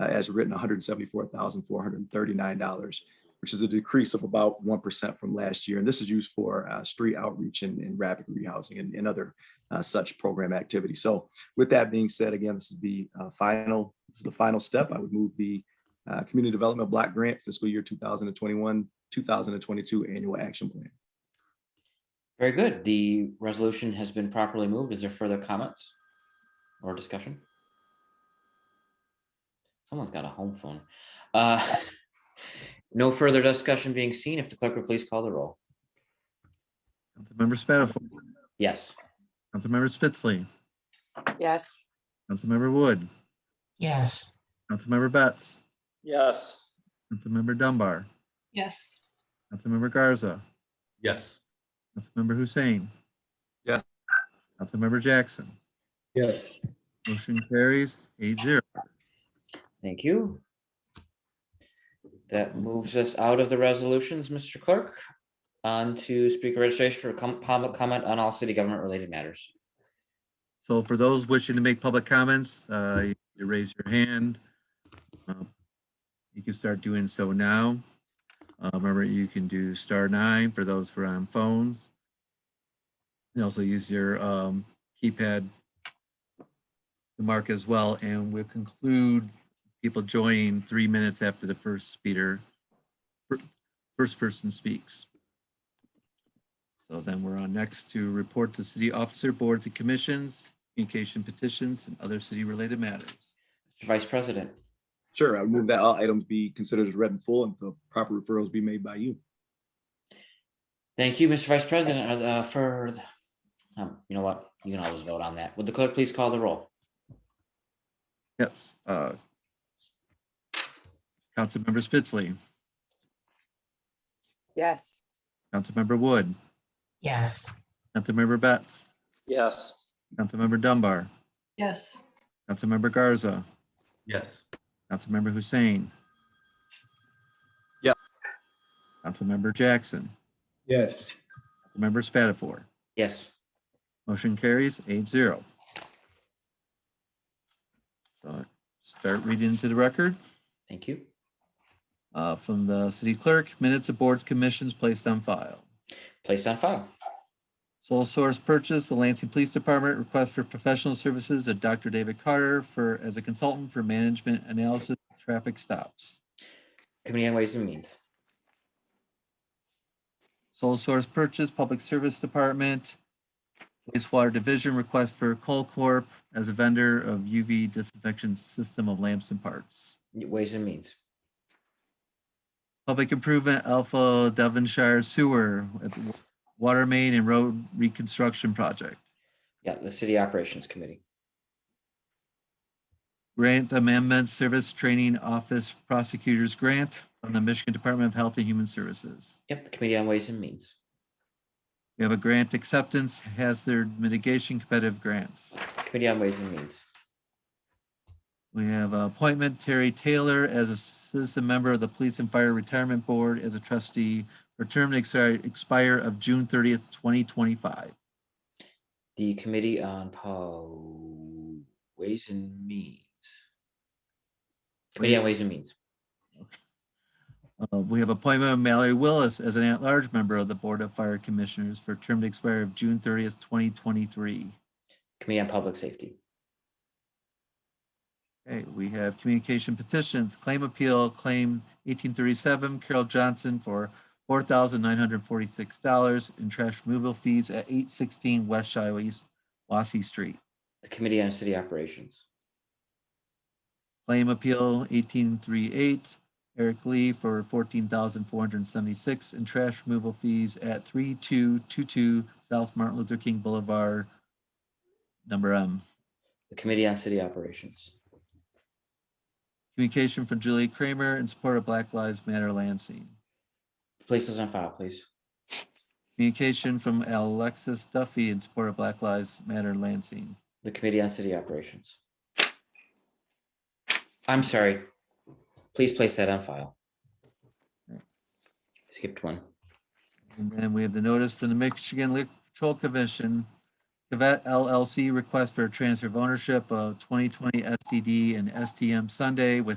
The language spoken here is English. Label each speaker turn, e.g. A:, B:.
A: uh, as written, $174,439, which is a decrease of about 1% from last year. And this is used for uh, street outreach and, and rapid rehousing and, and other uh, such program activity. So with that being said, again, this is the uh, final, this is the final step. I would move the uh, Community Development Block Grant Fiscal Year 2021, 2022 Annual Action Plan.
B: Very good. The resolution has been properly moved. Is there further comments or discussion? Someone's got a home phone. Uh, No further discussion being seen. If the clerk would please call the roll.
C: Councilmember Spatafor,
B: Yes,
C: Councilmember Spitzley,
D: Yes.
C: Councilmember Wood,
E: yes,
C: Councilmember Betts,
F: yes,
C: Councilmember Dunbar,
G: yes,
C: Councilmember Garza,
H: yes,
C: Councilmember Hussein.
A: Yes.
C: Councilmember Jackson.
H: yes,
C: Motion carries eight zero.
B: thank you. That moves us out of the resolutions, Mr. Clerk. On to speaker registration for com- public comment on all city government related matters.
C: So for those wishing to make public comments, uh, you you raise your hand. Um, You can start doing so now. Uh, Remember, you can do star nine for those who are on phones. And also use your um, keypad to mark as well, and we'll conclude people joining three minutes after the first speaker, fir- first person speaks. So then we're on next to reports of city officer, boards and commissions, communication petitions, and other city-related matters.
B: Mr. Vice President,
A: Sure, I would move that all items be considered as read and full and the proper referrals be made by you.
B: thank you, Mr. Vice President, Are the- for, the- um, you know what, you can always vote on that. Would the clerk please call the roll?
C: Yes. uh, Councilmember Spitzley,
D: Yes.
C: Councilmember Wood,
E: yes,
C: Councilmember Betts,
F: yes,
C: Councilmember Dunbar,
G: yes,
C: Councilmember Garza,
H: yes,
C: Councilmember Hussein.
A: Yeah.
C: Councilmember Jackson,
H: yes.
C: Councilmember Spatafor.
B: Yes,
C: Motion carries eight zero. So start reading to the record.
B: thank you.
C: Uh, from the city clerk, minutes of boards, commissions placed on file.
B: Placed on file.
C: Sole source purchase, the Lansing Police Department request for professional services of Dr. David Carter for, as a consultant for management analysis, of traffic stops.
B: Committee on Ways and Means.
C: Sole source purchase, Public Service Department, wastewater division request for Coal Corp as a vendor of UV disinfection system of lamps and parts.
B: Ways and Means.
C: Public improvement, Alpha Devonshire Sewer, at the water main and road reconstruction project.
B: Yeah, the City Operations Committee.
C: Grant Amendment Service Training Office Prosecutors Grant from the Michigan Department of Health and Human Services.
B: Yep, the Committee on Ways and Means.
C: We have a grant acceptance hazard mitigation competitive grants.
B: Committee on Ways and Means.
C: We have a appointment Terry Taylor as a citizen member of the Police and Fire Retirement Board as a trustee for term to exi- expire of June thirtieth, twenty twenty-five.
B: The Committee on Po, Ways and Means. Committee on Ways and Means.
C: Uh, we have appointment of Mallory Willis as an at-large member of the Board of Fire Commissioners for term to expire of June thirtieth, twenty twenty-three.
B: Committee on Public Safety.
C: Okay, we have communication petitions, claim appeal, claim eighteen thirty-seven, Carol Johnson for four thousand nine hundred forty-six dollars in trash removal fees at eight sixteen West Shiloh East Wassey Street.
B: The Committee on City Operations.
C: Claim appeal eighteen three eight, Eric Lee for fourteen thousand four hundred seventy-six in trash removal fees at three two two two South Martin Luther King Boulevard, number M.
B: The Committee on City Operations.
C: Communication from Julie Kramer in support of Black Lives Matter Lansing.
B: Place those on file, please.
C: Communication from Alexis Duffy in support of Black Lives Matter Lansing.
B: The Committee on City Operations. I'm sorry. Please place that on file. Skipped one.
C: And then we have the notice from the Michigan Liquor Control Commission. Cavett LLC request for a transfer of ownership of 2020 STD and STM Sunday with